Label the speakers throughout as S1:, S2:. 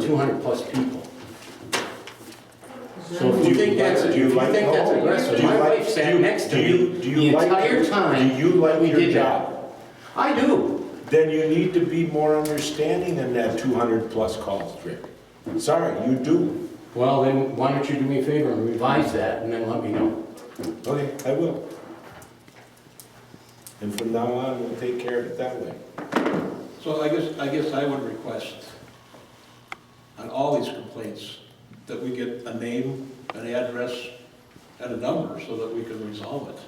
S1: two hundred plus people. So
S2: Do
S1: if you
S2: you
S1: think that's,
S2: like-
S1: if
S2: do you
S1: you
S2: like-
S1: think that's
S2: hold on.
S1: aggressive,
S2: Do you
S1: my
S2: like-
S1: wife
S2: do
S1: sat
S2: you-
S1: next to
S2: do
S1: me
S2: you- do
S1: the
S2: you like
S1: entire
S2: your-
S1: time.
S2: do you like
S1: we
S2: your
S1: did that.
S2: job?
S1: I do.
S2: Then you need to be more understanding than that 200-plus calls, Rick. Sorry, you do.
S1: Well, then, why don't you do me a favor and revise that, and then let me know.
S2: Okay, I will. And from now on, we'll take care of it that way.
S3: So I guess, I guess I would request on all these complaints that we get a name, an address, and a number so that we can resolve it.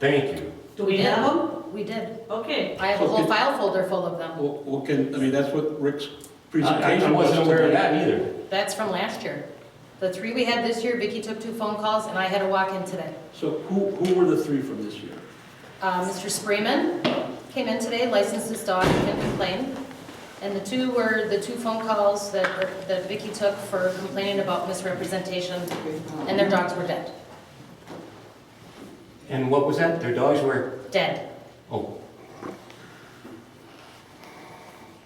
S1: Thank you.
S4: Do we have them?
S5: We did.
S4: Okay.
S5: I have a whole
S3: Okay.
S5: file folder full of them.
S3: Well, well, can, I mean, that's what Rick's
S1: I
S3: presentation
S1: I
S3: was.
S1: wasn't aware of that either.
S5: That's from last year. The three we had this year, Vicki took two phone calls and I had to walk in today.
S3: So who, who were the three from this year?
S5: Uh, Mr. Spreeman came in today, licensed his dog, didn't complain. And the two were the two phone calls that, that Vicki took for complaining about misrepresentation and their dogs were dead.
S1: And what was that? Their dogs were,
S5: Dead.
S1: oh,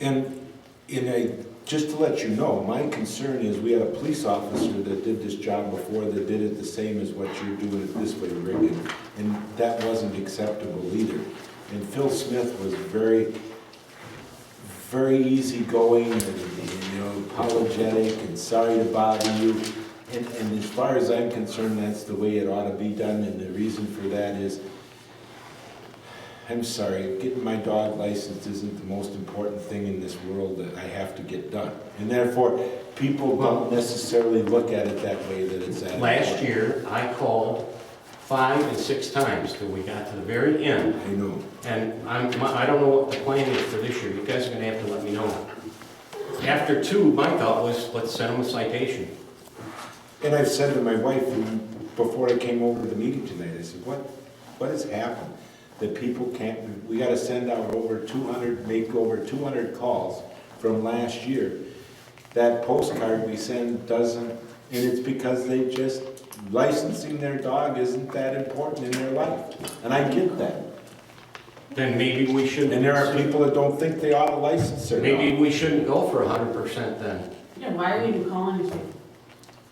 S2: And, and I, just to let you know, my concern is we had a police officer that did this job before that did it the same as what you're doing it this way, Rick, and- and that wasn't acceptable either. And Phil Smith was very, very easygoing and, and, you know, apologetic and sorry to bother you. And, and as far as I'm concerned, that's the way it ought to be done, and the reason for that is I'm sorry, getting my dog licensed isn't the most important thing in this world that I have to get done. And therefore, people don't necessarily look at it that way, that it's that.
S1: last
S2: important.
S1: year, I called five and six times till we got to the very end.
S2: I know.
S1: And I'm, my- I don't know what the plan is for this year, you guys are gonna have to let me know. After two, my thought was, let's send them a citation.
S2: And I've said to my wife, and before I came over to the meeting tonight, I said, what, what has happened? That people can't, we gotta send out over two hundred, make over two hundred calls from last year. That postcard we send doesn't, and it's because they just, licensing their dog isn't that important in their life. And I get that.
S1: Then maybe we shouldn't.
S2: And there are people that don't think they ought to license their dog.
S1: Maybe we shouldn't go for hundred percent then.
S4: Yeah, why are you calling these people?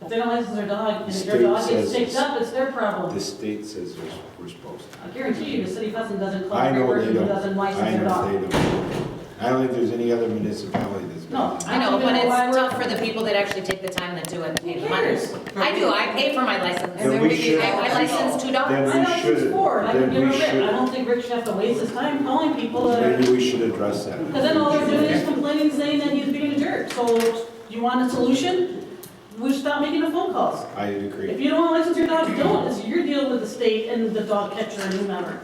S4: If they don't license their dog, and if their dog
S2: State
S4: gets
S2: says-
S4: picked up, it's their problem.
S2: The state says we're- we're supposed to.
S4: I guarantee you, the city of Hudson doesn't call
S2: I
S4: every
S2: know they
S4: person who
S2: don't.
S4: doesn't license
S2: I
S4: their
S2: know they
S4: dog.
S2: don't. I don't think there's any other municipality that's.
S4: No.
S5: I know, but it's tough for the people that actually take the time that do it and pay the money.
S4: Who
S5: I do, I pay for my license.
S2: Then we
S5: I-
S2: should-
S5: I license two dogs.
S2: Then
S4: I
S2: we
S4: don't think
S2: should,
S4: it's for, I
S2: then
S4: can give a
S2: we
S4: rip. I
S2: should.
S4: don't think Rick should have to waste his time calling people that,
S2: Maybe we should address that.
S4: because then all they're doing is complaining, saying that he's being a jerk. So you want a solution? We should stop making the phone calls.
S2: I
S4: If
S2: agree.
S4: you don't want to license your dog, don't. It's your deal with the state and the dog catcher and whomever.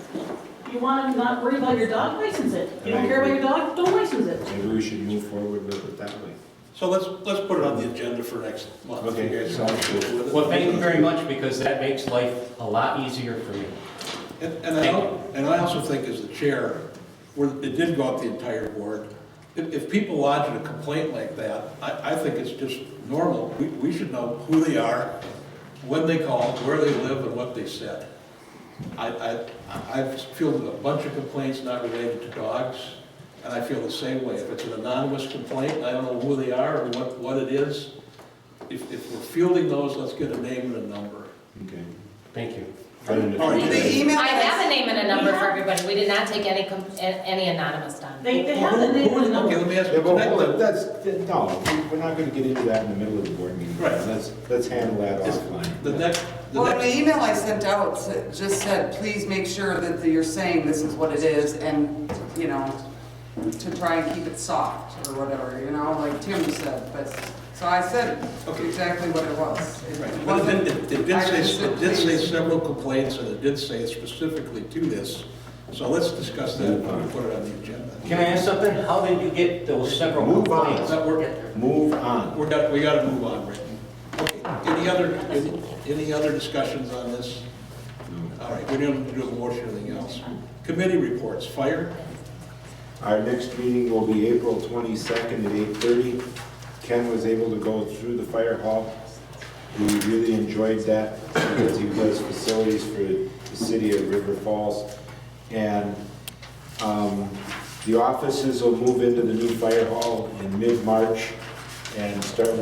S4: You want to not worry about your dog, license it. You don't care about your dog, don't license it.
S2: Maybe we should move forward with it that way.
S3: So let's, let's put it on the agenda for next month.
S2: Okay,
S3: You guys
S2: sounds
S3: can deal
S2: good.
S3: with it.
S1: Well, thank you very much, because that makes life a lot easier for me.
S3: And and I, al- and I also think as the chair, where it did go up the entire board, if, if people lodge a complaint like that, I, I think it's just normal. We, we should know who they are, when they called, where they live, and what they said. I, I, I've fielded a bunch of complaints not related to dogs, and I feel the same way. If it's an anonymous complaint, I don't know who they are or what, what it is. If, if we're fielding those, let's get a name and a number.
S2: Okay.
S1: Thank you.
S5: Oh,
S3: All right,
S6: The email
S5: I have a
S6: address,
S5: name and a number for everybody. We did not take any, com- a- any anonymous dog.
S4: They, they
S3: Well,
S4: have the
S3: who-
S4: name
S3: who
S4: and
S3: is-
S4: the number.
S3: Okay, let me ask
S2: Yeah,
S3: you,
S2: but hold
S3: tonight,
S2: it, that's, that- no, we- we're not gonna get into that in the middle of the board meeting.
S3: Right.
S2: Let's, let's handle that
S3: Is-
S2: offline.
S3: the next, the
S6: well,
S3: next,
S6: the email I sent out sa- just said, please make sure that you're saying this is what it is and, you know, to try and keep it soft or whatever, you know, like Tim said, but, so I said
S3: Okay.
S6: exactly what it was. It
S3: right, but
S6: wasn't-
S3: it did- it did
S6: I just
S3: say,
S6: said,
S3: it did say
S6: "Please."
S3: several complaints, and it did say specifically to this, so let's discuss that when we put it on the agenda.
S1: Can I ask something? How did you get those several
S2: Move on.
S1: complaints?
S3: That work,
S2: Move on.
S3: we're got, we gotta move on, Rick. Okay, any other, any- any other discussions on this? All right, we don't do a motion or anything else. Committee reports, fire,
S2: Our next meeting will be April twenty-second at eight-thirty. Ken was able to go through the fire hall. We really enjoyed that because he does facilities for the city of River Falls. And um, the offices will move into the new fire hall in mid-March. and start